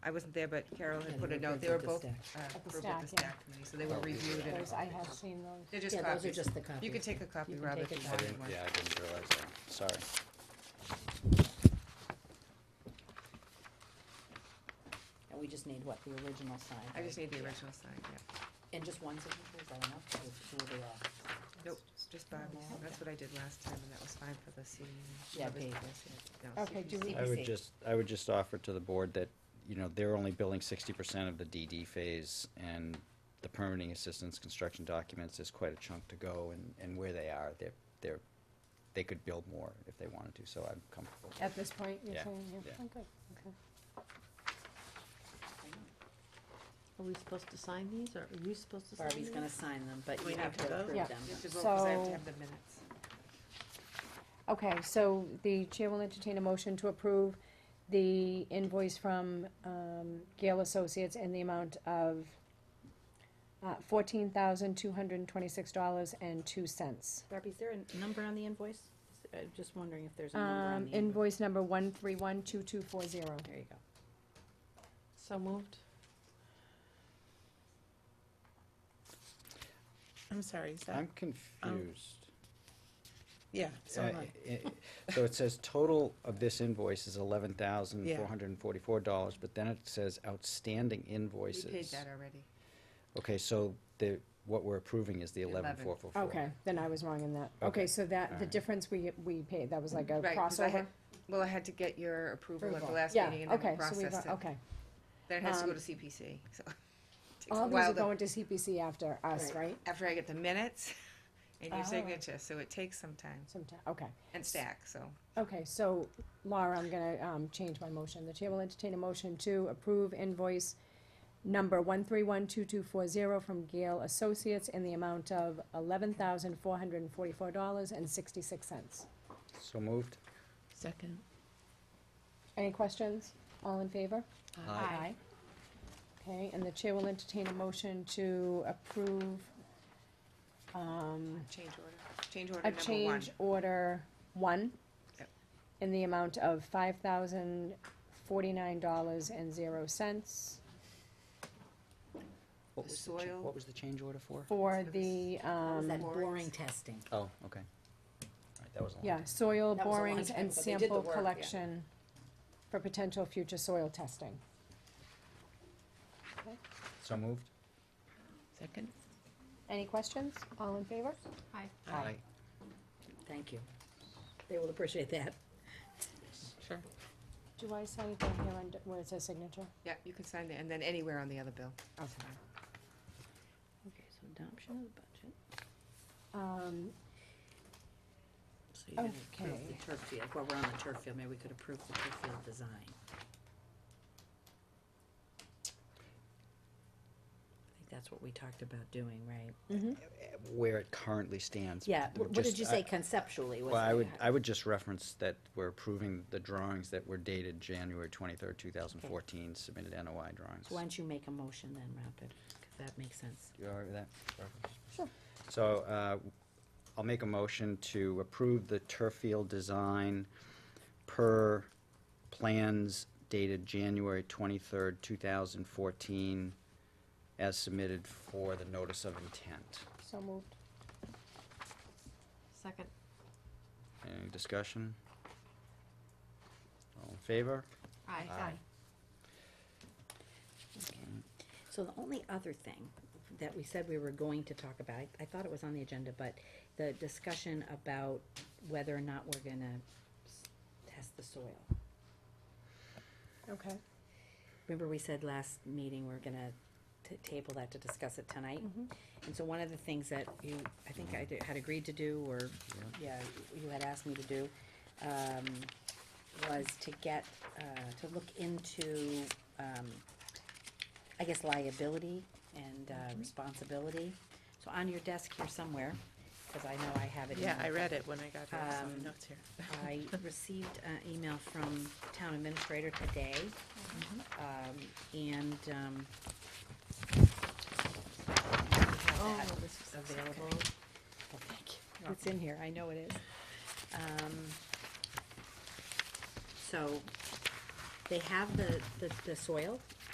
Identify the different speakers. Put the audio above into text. Speaker 1: I wasn't there, but Carol
Speaker 2: Yeah,
Speaker 1: had
Speaker 2: they
Speaker 1: put a
Speaker 2: were
Speaker 1: note,
Speaker 2: approved
Speaker 1: they were
Speaker 2: at the
Speaker 1: both
Speaker 2: stack.
Speaker 1: uh,
Speaker 3: At the
Speaker 1: approved at the
Speaker 3: stack, yeah.
Speaker 1: stack committee, so they were
Speaker 4: Oh, yeah.
Speaker 1: reviewed and
Speaker 3: Those, I have seen those.
Speaker 1: they're just
Speaker 2: Yeah, those are
Speaker 1: copies.
Speaker 2: just the copies.
Speaker 1: You could take a copy,
Speaker 2: You can
Speaker 1: Rob, if
Speaker 2: take
Speaker 1: you
Speaker 2: a
Speaker 4: I
Speaker 1: wanted
Speaker 4: didn't,
Speaker 1: one.
Speaker 4: yeah, I didn't realize that, sorry.
Speaker 2: And we just need what, the original sign?
Speaker 1: I just
Speaker 2: right?
Speaker 1: need the original sign, yeah.
Speaker 2: And just one signature, is that enough? Or two of the, uh,
Speaker 1: Nope, just Bob, that's what I did last time, and that was fine for the C.
Speaker 2: Yeah, Dave.
Speaker 1: No,
Speaker 3: Okay, do we-
Speaker 4: I
Speaker 2: CPC.
Speaker 4: would just, I would just offer to the board that, you know, they're only billing sixty percent of the DD phase, and the permitting assistance construction documents is quite a chunk to go, and, and where they are, they're, they're, they could build more if they wanted to, so I'm comfortable. with
Speaker 3: At this point, you're
Speaker 4: Yeah,
Speaker 3: saying, yeah,
Speaker 4: yeah.
Speaker 3: oh, good, okay.
Speaker 2: I know.
Speaker 5: Are we supposed to sign these, or are you supposed to sign these?
Speaker 2: Barbie's gonna sign them, but
Speaker 1: We
Speaker 2: you have
Speaker 1: have to
Speaker 2: to
Speaker 1: vote?
Speaker 2: approve
Speaker 3: Yeah.
Speaker 2: them.
Speaker 1: You have to vote, 'cause I have to
Speaker 3: So-
Speaker 1: have the minutes.
Speaker 3: Okay, so the chair will entertain a motion to approve the invoice from um, Gale Associates in the amount of uh, fourteen thousand two hundred and twenty-six dollars and two cents.
Speaker 5: Barbie, is there a number on the invoice? I'm just wondering if there's a number on
Speaker 3: Um,
Speaker 5: the invoice.
Speaker 3: invoice number one three one two two four zero.
Speaker 2: There you go.
Speaker 5: So moved.
Speaker 6: I'm sorry, is
Speaker 4: it.
Speaker 6: that,
Speaker 4: I'm confused.
Speaker 6: Um, yeah, so am
Speaker 4: Uh,
Speaker 6: I.
Speaker 4: i- i- So it says total of this invoice is eleven thousand four hundred and forty-four dollars, but then it says outstanding
Speaker 1: We
Speaker 4: invoices.
Speaker 1: paid that already.
Speaker 4: Okay, so the, what we're approving is the eleven
Speaker 1: Eleven.
Speaker 4: four four four.
Speaker 3: Okay, then I was wrong in that. Okay,
Speaker 4: Okay,
Speaker 3: so that, the
Speaker 4: alright.
Speaker 3: difference we, we paid, that was like a
Speaker 1: Right, 'cause I
Speaker 3: crossover?
Speaker 1: had- Well, I had to get your approval at the
Speaker 3: Approval.
Speaker 1: last
Speaker 3: Yeah,
Speaker 1: meeting, and then we
Speaker 3: okay, so we've-
Speaker 1: processed it.
Speaker 3: Okay,
Speaker 1: Then it has to go
Speaker 3: Um,
Speaker 1: to CPC, so. it takes a
Speaker 3: all these
Speaker 1: while
Speaker 3: are
Speaker 1: to-
Speaker 3: going to CPC after us, right?
Speaker 1: After I get the minutes and your
Speaker 3: Oh.
Speaker 1: signature, so it takes some time,
Speaker 3: Sometime, okay.
Speaker 1: and stack, so.
Speaker 3: Okay, so Laura, I'm gonna, um, change my motion. The chair will entertain a motion to approve invoice number one three one two two four zero from Gale Associates in the amount of eleven thousand four hundred and forty-four dollars and sixty-six cents.
Speaker 4: So moved?
Speaker 6: Second.
Speaker 3: Any questions? All in favor?
Speaker 4: Aye.
Speaker 3: Okay, and the chair will entertain a motion to approve, um,
Speaker 1: Change order, change order
Speaker 3: a
Speaker 1: number one.
Speaker 3: change order one
Speaker 1: Yep.
Speaker 3: in the amount of five thousand forty-nine dollars and zero cents
Speaker 4: What
Speaker 1: The
Speaker 4: was the, cha-
Speaker 1: soil-
Speaker 4: what was the change order for?
Speaker 3: for the,
Speaker 2: What was
Speaker 3: um,
Speaker 2: that
Speaker 1: Boards.
Speaker 2: boring testing?
Speaker 4: Oh, okay. All right, that was a long
Speaker 3: yeah,
Speaker 4: time.
Speaker 3: soil
Speaker 2: That was a long
Speaker 3: borings
Speaker 2: time
Speaker 3: and
Speaker 2: ago. They did the
Speaker 3: sample
Speaker 2: work, yeah.
Speaker 3: collection for potential future soil testing.
Speaker 4: So moved?
Speaker 6: Second?
Speaker 3: Any questions? All in favor?
Speaker 2: Aye. Thank you. They will appreciate that.
Speaker 6: Sure.
Speaker 3: Do I sign it down here under, where it says signature?
Speaker 1: Yeah, you can sign it, and then anywhere on the other bill.
Speaker 3: Okay.
Speaker 5: Okay, so adoption of the budget.
Speaker 3: Um,
Speaker 2: So you're gonna approve
Speaker 3: Okay.
Speaker 2: the turf field, well, we're on the turf field, maybe we could approve the turf field design. I think that's what we talked about doing, right?
Speaker 4: Where it currently stands.
Speaker 2: Yeah,
Speaker 4: but
Speaker 2: wh- what
Speaker 4: just-
Speaker 2: did you
Speaker 4: I-
Speaker 2: say conceptually? was
Speaker 4: Well, I
Speaker 2: it?
Speaker 4: would, I would just reference that we're approving the drawings that were dated January twenty-third, two thousand fourteen, submitted NOI drawings.
Speaker 2: So why don't you make a motion then, Rapid, because that makes sense.
Speaker 4: You all right with that? Barbara?
Speaker 3: Sure.
Speaker 4: So, uh, I'll make a motion to approve the turf field design per plans dated January twenty-third, two thousand fourteen, as submitted for the notice of intent.
Speaker 3: so moved.
Speaker 5: Second.
Speaker 4: Any discussion? All in favor?
Speaker 5: Aye.
Speaker 4: Aye.
Speaker 2: So the only other thing that we said we were going to talk about, I- I thought it was on the agenda, but the discussion about whether or not we're gonna s- test the soil.
Speaker 3: Okay.
Speaker 2: Remember we said last meeting, we're gonna t- table that to discuss it tonight?
Speaker 6: Mm-hmm.
Speaker 2: And so one of the things that you, I think I did- had agreed to do, or, yeah, you had asked me to do, um, was to get, uh, to look into, um, I guess liability and,
Speaker 6: Mm-hmm.
Speaker 2: uh, responsibility. So on your desk here somewhere, cause I know I have it in.
Speaker 6: Yeah, I
Speaker 2: my-
Speaker 6: read it when I got here, so
Speaker 2: Um,
Speaker 6: notes here.
Speaker 2: I received an email from town administrator today. Um, and, um.
Speaker 6: Oh,
Speaker 2: that
Speaker 6: this is
Speaker 2: Available.
Speaker 6: okay.
Speaker 2: Oh, thank you. It's in here, I know it is. Um, so, they have the, the, the soil,